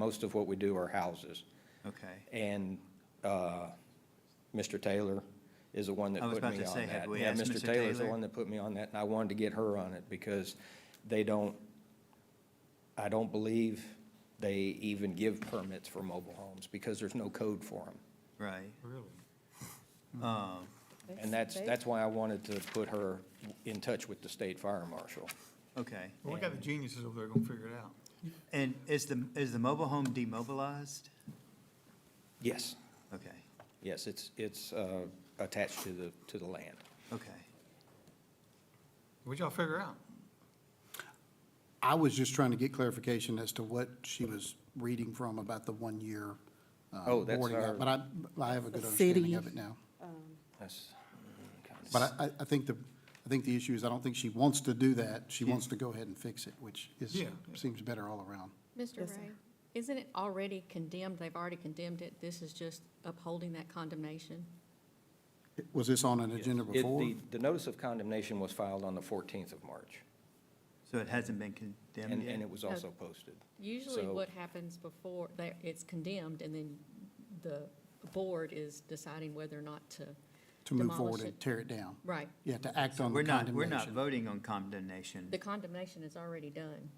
Most of what we do are houses. Okay. And uh, Mr. Taylor is the one that I was put me about on that. to say, have we Yeah, asked Mr. Taylor's the Taylor? one that put me on that, and I wanted to get her on it because they don't, I don't believe they even give permits for mobile homes because there's no code for them. Right. Really? Um, And that's, that's why I wanted to put her in touch with the state fire marshal. Okay. Well, we got the geniuses over there gonna figure it out. And is the, is the mobile home demobilized? Yes, Okay, yes, it's, it's uh, attached to the, to the land. okay. What y'all figure out? I was just trying to get clarification as to what she was reading from about the one-year. uh, Oh, that's boarding our- up, But I, I have a good The understanding city. of it now. That's kind of- But I, I- I think the, I think the issue is I don't think she wants to do that. She wants to go ahead and fix it, which is, Yeah. seems better all around. Mr. Yes, sir. Ray, isn't it already condemned? They've already condemned it. This is just upholding that condemnation? Was this on an agenda It- before? the- The notice of condemnation was filed on the 14th of March, So it hasn't been condemned and, and yet? it was also posted. Usually So- what happens before, that it's condemned and then the board is deciding whether or not to, To move forward demolish and it. tear it down. right. You have to act on We're the not, we're not condemnation. voting on condemnation. The condemnation is already done.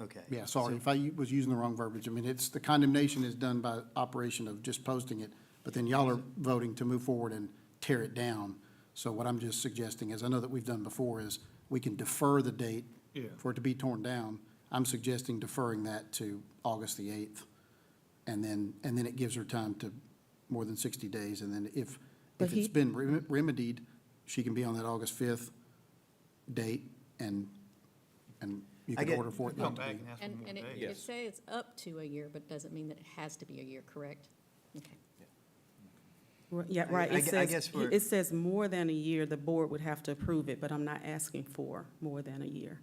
Okay. Yeah, sorry, if I u- was using the wrong verbiage. I mean, it's, the condemnation is done by operation of just posting it, but then y'all are voting to move forward and tear it down. So what I'm just suggesting is, I know that we've done before, is we can defer the date Yeah. for it to be torn down. I'm suggesting deferring that to August the 8th. And then, and then it gives her time to more than 60 days. And then if, But if he- it's been rem- remedied, she can be on that August 5th date and, and you I can get- order for it Come not to back be. and ask for And, more and it, days. it Yes. says up to a year, but doesn't mean that it has to be a year, correct? Okay. R- Yeah, I- right. I It gu- I says, guess we're- it says more than a year, the board would have to approve it, but I'm not asking for more than a year.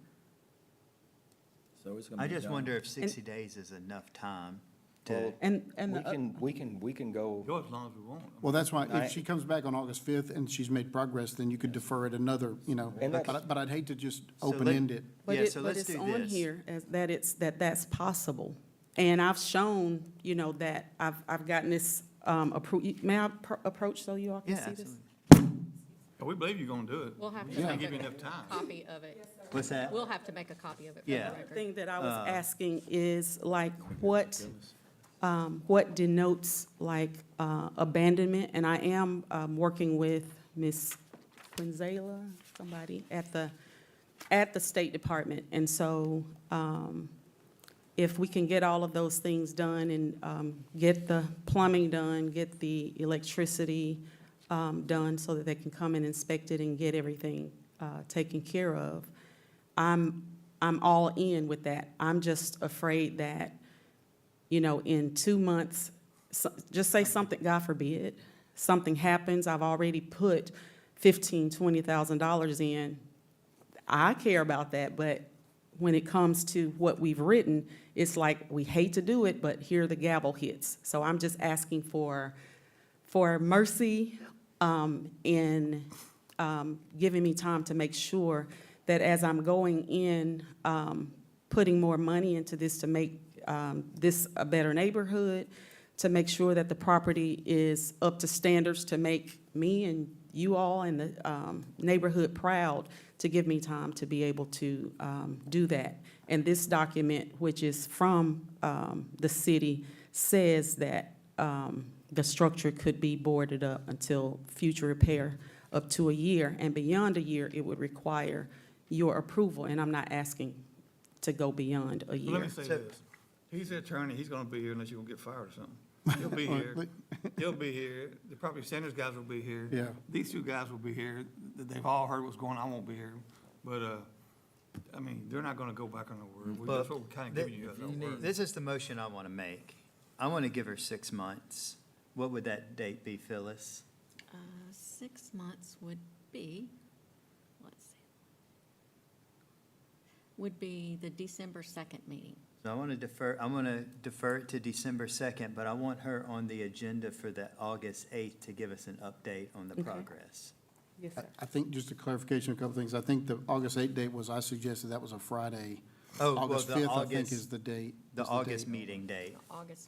I just wonder if 60 days is enough time to, Well, And, and, We the- uh, can, we can, we can go, Go as long as we want. Well, that's why, I- if she comes back on August 5th and she's made progress, then you could defer it another, you know, And but, that's- I- but I'd hate to just let- open-end it. but yeah, it, so but let's it's do on this. here as, that it's, that that's possible. And I've shown, you know, that I've, I've gotten this, um, appro, may I pro- approach so you all yeah, can see this? absolutely. We believe you're gonna do it. We'll have We to just can't make give you a enough time. copy of it. What's that? We'll have to make a copy of it for the Yeah. record. Thing that I was asking is like, what, um, what denotes like, uh, abandonment? And I am, um, working with Ms. Quinzela, somebody at the, at the State Department. And so, um, if we can get all of those things done and, um, get the plumbing done, get the electricity, um, done so that they can come and inspect it and get everything, uh, taken care of, I'm, I'm all in with that. I'm just afraid that, you know, in two months, so- just say something, God forbid, something happens, I've already put fifteen, twenty thousand dollars in. I care about that, but when it comes to what we've written, it's like, we hate to do it, but here the gavel hits. So I'm just asking for, for mercy um, in um, giving me time to make sure that as I'm going in, um, putting more money into this to make um, this a better neighborhood, to make sure that the property is up to standards to make me and you all and the um, neighborhood proud, to give me time to be able to um, do that. And this document, which is from um, the city, says that um, the structure could be boarded up until future repair up to a year. And beyond a year, it would require your approval, and I'm not asking to go beyond a Well, Let me year. say So- this. He's the attorney. He's gonna be here unless you're gonna get fired or something. He'll be here. He'll be here. The property standards guys will be here. Yeah. These two guys will be here. Th- They've all heard what's going on. I won't be here. But, uh, I mean, they're not gonna go back on the word. We- That's But what we're kinda th- giving you as a word. This is the motion I want to make. I want to give her six months. What would that date be, Phyllis? Uh, Six months would be, let's see, would be the December 2nd meeting. So I want to defer, I'm going to defer it to December 2nd, but I want her on the agenda for the August 8th to give us an update on the progress. Yes, I- I think, just a clarification, a couple things, I think the August 8th date was, I suggested that was a Friday, Oh, well, August the 5th, I think, is August, the date. the is August date. meeting date. August